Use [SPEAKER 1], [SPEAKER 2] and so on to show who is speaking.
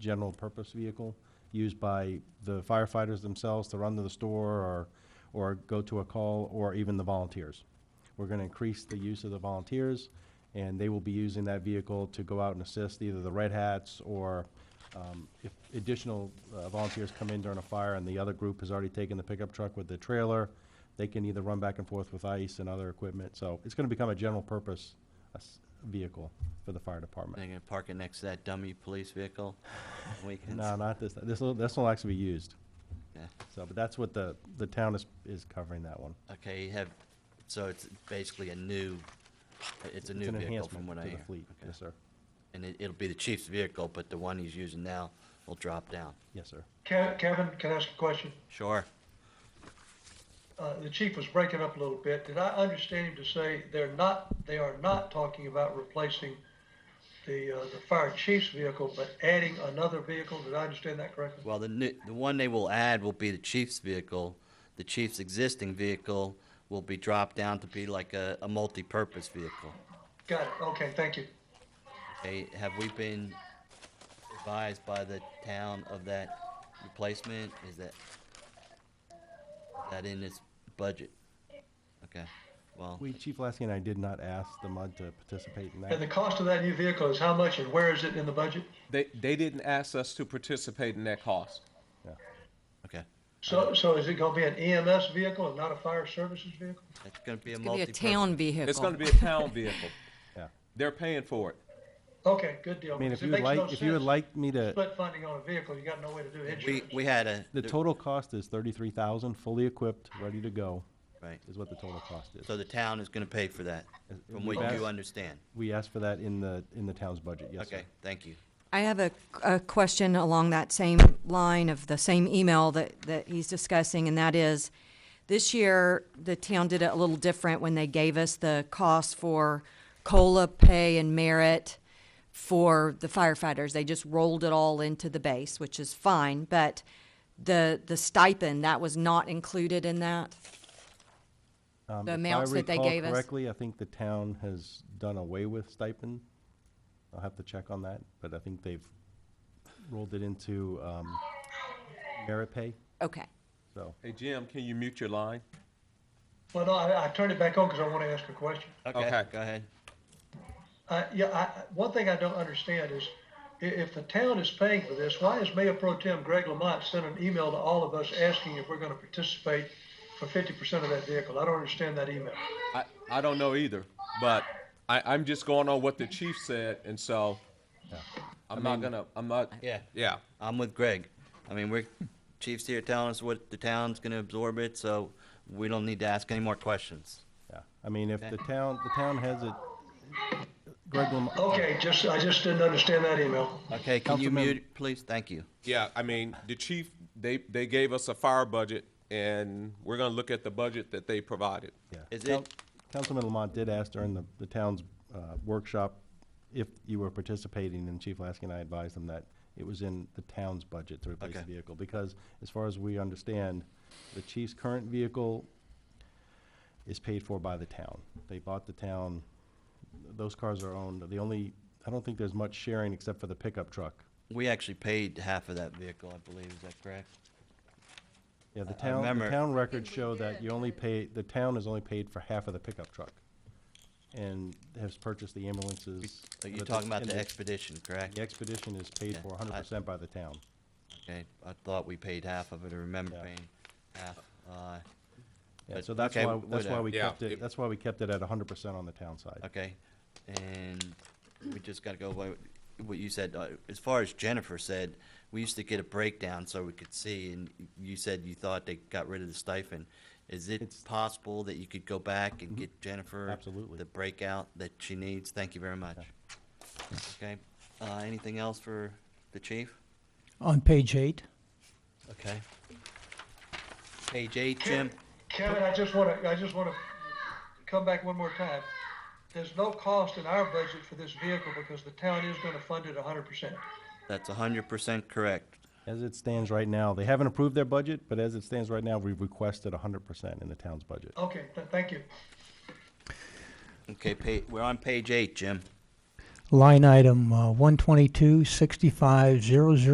[SPEAKER 1] general purpose vehicle used by the firefighters themselves to run to the store or, or go to a call, or even the volunteers. We're gonna increase the use of the volunteers, and they will be using that vehicle to go out and assist either the Red Hats or, um, if additional uh, volunteers come in during a fire and the other group has already taken the pickup truck with the trailer, they can either run back and forth with ice and other equipment, so it's gonna become a general purpose uh, s- vehicle for the fire department.
[SPEAKER 2] They're gonna park it next to that dummy police vehicle on weekends?
[SPEAKER 1] No, not this, this will, this will actually be used,
[SPEAKER 2] Yeah.
[SPEAKER 1] so, but that's what the, the town is, is covering that one.
[SPEAKER 2] Okay, you have, so it's basically a new,
[SPEAKER 1] It's
[SPEAKER 2] it's a new
[SPEAKER 1] an
[SPEAKER 2] vehicle
[SPEAKER 1] enhancement
[SPEAKER 2] from what I
[SPEAKER 1] to
[SPEAKER 2] hear.
[SPEAKER 1] the fleet,
[SPEAKER 2] Okay.
[SPEAKER 1] yes, sir,
[SPEAKER 2] And it, it'll be the chief's vehicle, but the one he's using now will drop down.
[SPEAKER 1] yes, sir.
[SPEAKER 3] Ke- Kevin, can I ask a question?
[SPEAKER 2] Sure.
[SPEAKER 3] Uh, The chief was breaking up a little bit. Did I understand him to say they're not, they are not talking about replacing the, uh, the fire chief's vehicle, but adding another vehicle? Did I understand that correctly?
[SPEAKER 2] Well, the new, the one they will add will be the chief's vehicle. The chief's existing vehicle will be dropped down to be like a, a multi-purpose vehicle.
[SPEAKER 3] Got it. Okay, thank you.
[SPEAKER 2] Okay, have we been advised by the town of that replacement? Is that, is that in its budget? Okay, well,
[SPEAKER 1] We, Chief Lasky and I did not ask the MUD to participate in that.
[SPEAKER 3] And the cost of that new vehicle is how much and where is it in the budget?
[SPEAKER 4] They, they didn't ask us to participate in that cost.
[SPEAKER 1] Yeah.
[SPEAKER 2] okay.
[SPEAKER 3] So, so is it gonna be an EMS vehicle and not a fire services vehicle?
[SPEAKER 2] That's gonna be a
[SPEAKER 5] It's gonna
[SPEAKER 2] multi
[SPEAKER 5] be a town vehicle.
[SPEAKER 4] It's gonna be a town vehicle.
[SPEAKER 1] Yeah.
[SPEAKER 4] They're paying for it.
[SPEAKER 3] Okay, good deal.
[SPEAKER 1] I mean, if
[SPEAKER 3] because it
[SPEAKER 1] you would
[SPEAKER 3] makes no
[SPEAKER 1] like, if you would
[SPEAKER 3] sense.
[SPEAKER 1] like me to,
[SPEAKER 3] Split funding on a vehicle, you got no way to do
[SPEAKER 2] We,
[SPEAKER 3] insurance.
[SPEAKER 2] we had a,
[SPEAKER 1] The total cost is thirty-three thousand, fully equipped, ready to go,
[SPEAKER 2] right,
[SPEAKER 1] is what the total cost is.
[SPEAKER 2] so the town is gonna pay for that, from what
[SPEAKER 1] we've asked-
[SPEAKER 2] you understand.
[SPEAKER 1] We asked for that in the, in the town's budget, yes, sir.
[SPEAKER 2] Okay, thank you.
[SPEAKER 5] I have a, a question along that same line of the same email that, that he's discussing, and that is, this year, the town did it a little different when they gave us the cost for COLA pay and merit for the firefighters. They just rolled it all into the base, which is fine, but the, the stipend, that was not included in that?
[SPEAKER 1] Um,
[SPEAKER 5] The amounts that they gave
[SPEAKER 1] If I recall
[SPEAKER 5] us?
[SPEAKER 1] correctly, I think the town has done away with stipend. I'll have to check on that, but I think they've rolled it into, um, merit pay,
[SPEAKER 5] Okay.
[SPEAKER 1] so.
[SPEAKER 4] Hey, Jim, can you mute your line?
[SPEAKER 3] Well, no, I, I turned it back on because I want to ask a question.
[SPEAKER 2] Okay,
[SPEAKER 4] Okay.
[SPEAKER 2] go ahead.
[SPEAKER 3] I yeah, I, I- one thing I don't understand is i- if the town is paying for this, why has Mayor Pro Tem Greg Lamont sent an email to all of us asking if we're going to participate for 50% of that vehicle? I don't understand that email.
[SPEAKER 4] I, I don't know either, but I, I'm just going on what the chief said, and so I'm not gonna, I'm not,
[SPEAKER 2] Yeah.
[SPEAKER 4] yeah.
[SPEAKER 2] I'm with Greg. I mean, we're, chief's here telling us what the town's gonna absorb it, so we don't need to ask any more questions.
[SPEAKER 1] Yeah, I mean, if
[SPEAKER 2] Okay.
[SPEAKER 1] the town, the town has it, Greg Lam-
[SPEAKER 2] Oh,
[SPEAKER 3] Okay, just I just didn't understand that email.
[SPEAKER 2] Okay, can you
[SPEAKER 1] Councilmember-
[SPEAKER 2] mute, please? Thank you.
[SPEAKER 4] Yeah, I mean, the chief, they, they gave us a fire budget, and we're gonna look at the budget that they provided.
[SPEAKER 1] Yeah.
[SPEAKER 2] Is
[SPEAKER 1] Coun-
[SPEAKER 2] it-
[SPEAKER 1] Councilman Lamont did ask during the, the town's, uh, workshop if you were participating, and Chief Lasky and I advised him that it was in the town's budget to replace the
[SPEAKER 2] Okay.
[SPEAKER 1] vehicle, because as far as we understand, the chief's current vehicle is paid for by the town. They bought the town, those cars are owned, the only, I don't think there's much sharing except for the pickup truck.
[SPEAKER 2] We actually paid half of that vehicle, I believe, is that correct?
[SPEAKER 1] Yeah, the
[SPEAKER 2] I
[SPEAKER 1] town, the
[SPEAKER 2] remember-
[SPEAKER 1] town records show that you only pay, the town is only paid for half of the pickup truck. And has purchased the ambulances.
[SPEAKER 2] So
[SPEAKER 1] but
[SPEAKER 2] Oh, You're talking about
[SPEAKER 1] and
[SPEAKER 2] the expedition, correct?
[SPEAKER 1] The expedition is paid
[SPEAKER 2] Yeah,
[SPEAKER 1] for hundred
[SPEAKER 2] I-
[SPEAKER 1] percent by the town.
[SPEAKER 2] Okay, I thought we paid half of it, I remember
[SPEAKER 1] Yeah.
[SPEAKER 2] paying half. Uh,
[SPEAKER 1] Yeah,
[SPEAKER 2] But-
[SPEAKER 1] so that's
[SPEAKER 2] okay,
[SPEAKER 1] why, that's why
[SPEAKER 2] whatever.
[SPEAKER 1] we
[SPEAKER 4] Yeah,
[SPEAKER 1] kept it,
[SPEAKER 4] it-
[SPEAKER 1] that's why we kept it at hundred percent on the town side.
[SPEAKER 2] Okay, and we just gotta go by what you said, uh, as far as Jennifer said, we used to get a breakdown so we could see, and you said you thought they got rid of the stipend. Is it
[SPEAKER 1] It's- Mm-hmm.
[SPEAKER 2] possible that you could go back and get Jennifer?
[SPEAKER 1] Absolutely.
[SPEAKER 2] The breakout that she needs, thank you very much. Okay, uh, anything else for the chief?
[SPEAKER 6] On page eight,
[SPEAKER 2] Okay. Page eight, Jim?
[SPEAKER 3] Kevin, I just want to I just want to come back one more time. There's no cost in our budget for this vehicle because the town is going to fund it 100%.
[SPEAKER 2] That's a hundred percent correct.
[SPEAKER 1] As it stands right now, they haven't approved their budget, but as it stands right now, we've requested hundred percent in the town's budget.
[SPEAKER 3] Okay, th- thank you.
[SPEAKER 2] Okay, pa- we're on page eight, Jim.
[SPEAKER 6] line item one twenty-two uh, sixty-five zero zero